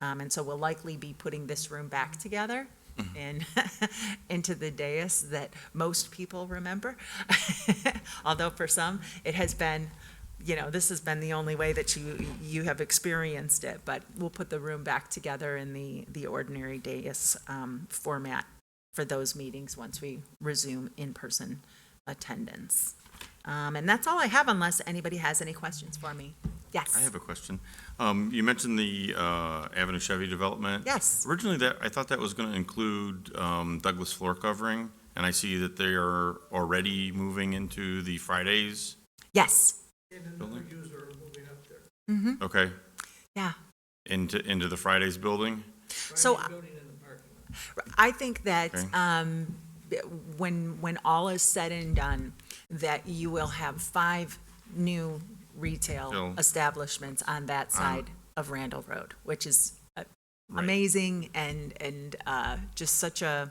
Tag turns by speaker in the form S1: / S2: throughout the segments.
S1: Um, and so we'll likely be putting this room back together
S2: Mm-hmm.
S1: and into the dais that most people remember. Although for some, it has been, you know, this has been the only way that you, you have experienced it. But we'll put the room back together in the, the ordinary dais, um, format for those meetings once we resume in-person attendance. Um, and that's all I have unless anybody has any questions for me. Yes.
S2: I have a question. Um, you mentioned the, uh, Avenue Chevy development.
S1: Yes.
S2: Originally that, I thought that was gonna include, um, Douglas floor covering, and I see that they are already moving into the Fridays
S1: Yes.
S2: building.
S1: Mm-hmm.
S2: Okay,
S1: Yeah.
S2: into, into the Fridays building?
S1: So I think that
S2: Okay.
S1: um, when, when all is said and done, that you will have five new retail
S2: Still.
S1: establishments on that side of Randall Road, which is uh,
S2: Right.
S1: amazing and, and uh, just such a,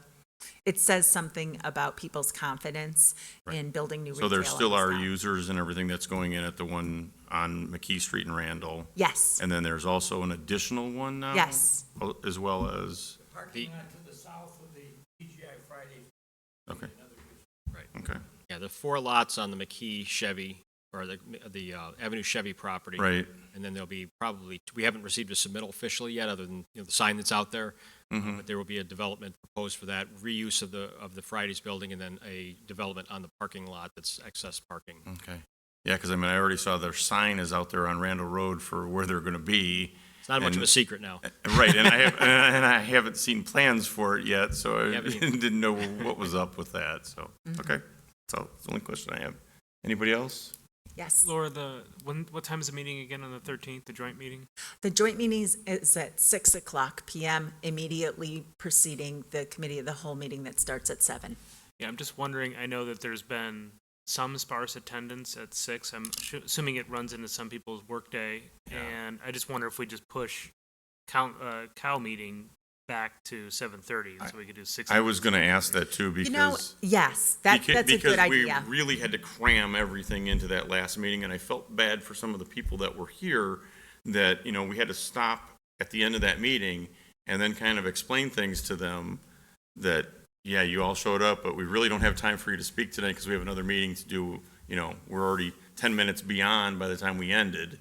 S1: it says something about people's confidence in building new retail.
S2: So there
S1: in
S2: still
S1: this
S2: are
S1: town.
S2: users and everything that's going in at the one on McKee Street in Randall?
S1: Yes,
S2: And then there's also an additional one now?
S1: yes,
S2: Oh, As well as,
S3: Parking lot to the south of the TGI Fridays.
S2: okay.
S4: Right.
S2: Okay,
S4: Yeah, the four lots on the McKee Chevy, or the, the uh, Avenue Chevy property.
S2: right,
S4: And then there'll be probably, we haven't received a submittal officially yet, other than, you know, the sign that's out there. Uh,
S2: Mm-hmm.
S4: But there will be a development proposed for that, reuse of the, of the Fridays building, and then a development on the parking lot that's excess parking.
S2: okay. Yeah, because I mean, I already saw their sign is out there on Randall Road for where they're going to be.
S4: It's not much of a
S2: And-
S4: secret now.
S2: Right, and I have, and I haven't seen plans for it yet, so I
S4: Yeah, but you-
S2: didn't know what was up with that, so, okay. So, that's the only question I have. Anybody else?
S1: yes.
S5: Laura, the when what time is the meeting again on the thirteenth? The joint meeting.
S1: The joint meeting is- is at 6 o'clock PM, immediately preceding the committee of the whole meeting that starts at 7.
S5: Yeah, I'm just wondering. I know that there's been some sparse attendance at six. I'm assu- assuming it runs into some people's workday, and I just wonder if we just push cow, uh, cow meeting back to seven thirty, so we could do six.
S2: I was going to ask that too,
S1: You know,
S2: because.
S1: yes, that,
S2: Beca-
S1: that's a good idea.
S2: Because we really had to cram everything into that last meeting, and I felt bad for some of the people that were here, that, you know, we had to stop at the end of that meeting and then kind of explain things to them that, yeah, you all showed up, but we really don't have time for you to speak today because we have another meeting to do, you know, we're already 10 minutes beyond by the time we ended.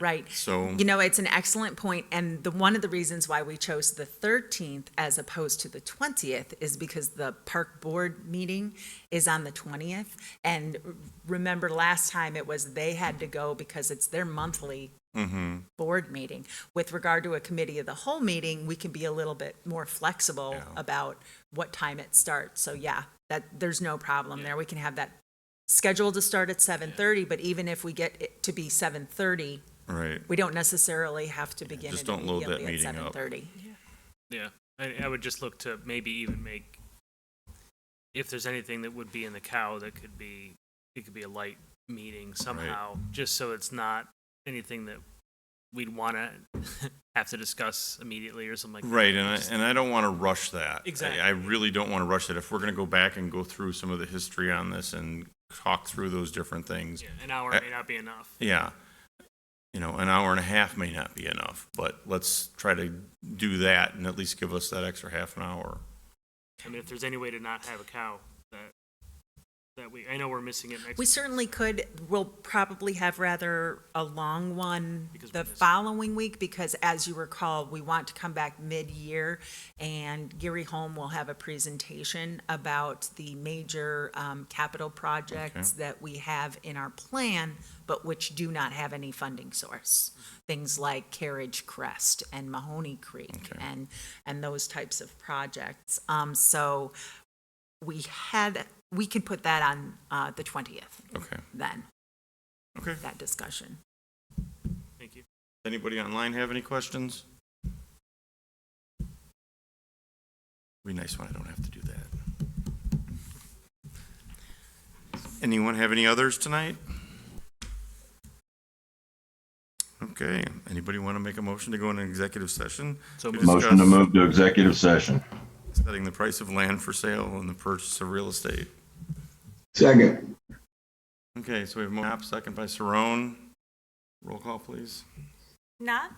S1: Right.
S2: So-
S1: You know, it's an excellent point, and the, one of the reasons why we chose the thirteenth as opposed to the twentieth is because the park board meeting is on the twentieth. And r- remember last time it was they had to go because it's their monthly
S2: Mm-hmm.
S1: board meeting. With regard to a committee of the whole meeting, we can be a little bit more flexible
S2: Yeah.
S1: about what time it starts. So yeah, that, there's no problem there. We can have that scheduled to start at seven thirty, but even if we get it to be seven thirty,
S2: Right.
S1: we don't necessarily have to begin
S2: just
S1: it
S2: don't load that
S1: immediately at
S2: meeting
S1: seven
S2: up.
S1: thirty.
S5: Yeah, I, I would just look to maybe even make if there's anything that would be in the cow that could be it could be a light meeting somehow, just so it's not anything that we'd want to have to discuss immediately or something like that.
S2: Right, and I,
S5: Just-
S2: and I don't want to rush that. I-
S5: Exactly.
S2: I really don't want to rush it. If we're going to go back and go through some of the history on this and talk through those different things,
S5: yeah, an hour may not be enough.
S2: yeah, you know, an hour and a half may not be enough, but let's try to do that and at least give us that extra half an hour.
S5: I mean, if there's any way to not have a cow that that we I know we're missing it next.
S1: We certainly could, we'll probably have rather a long one
S5: Because we
S1: the
S5: missed-
S1: following week, because as you recall, we want to come back mid-year, and Gary Holm will have a presentation about the major um, capital projects that we have in our plan, but which do not have any funding source. Things like Carriage Crest and Mahoney Creek
S2: Okay.
S1: and, and those types of projects. Um, So we had, we could put that on uh, the 20th
S2: Okay.
S1: then,
S2: Okay.
S1: that discussion.
S5: Thank you.
S2: Anybody online have any questions? Be nice when I don't have to do that. Anyone have any others tonight? Okay, anybody want to make a motion to go into executive session?
S5: So
S6: Motion to
S2: discuss
S6: move to executive session.
S2: Setting the price of land for sale and the purchase of real estate.
S6: Second.
S2: Okay, so we have Mo, second by Saron. Roll call, please.
S7: Not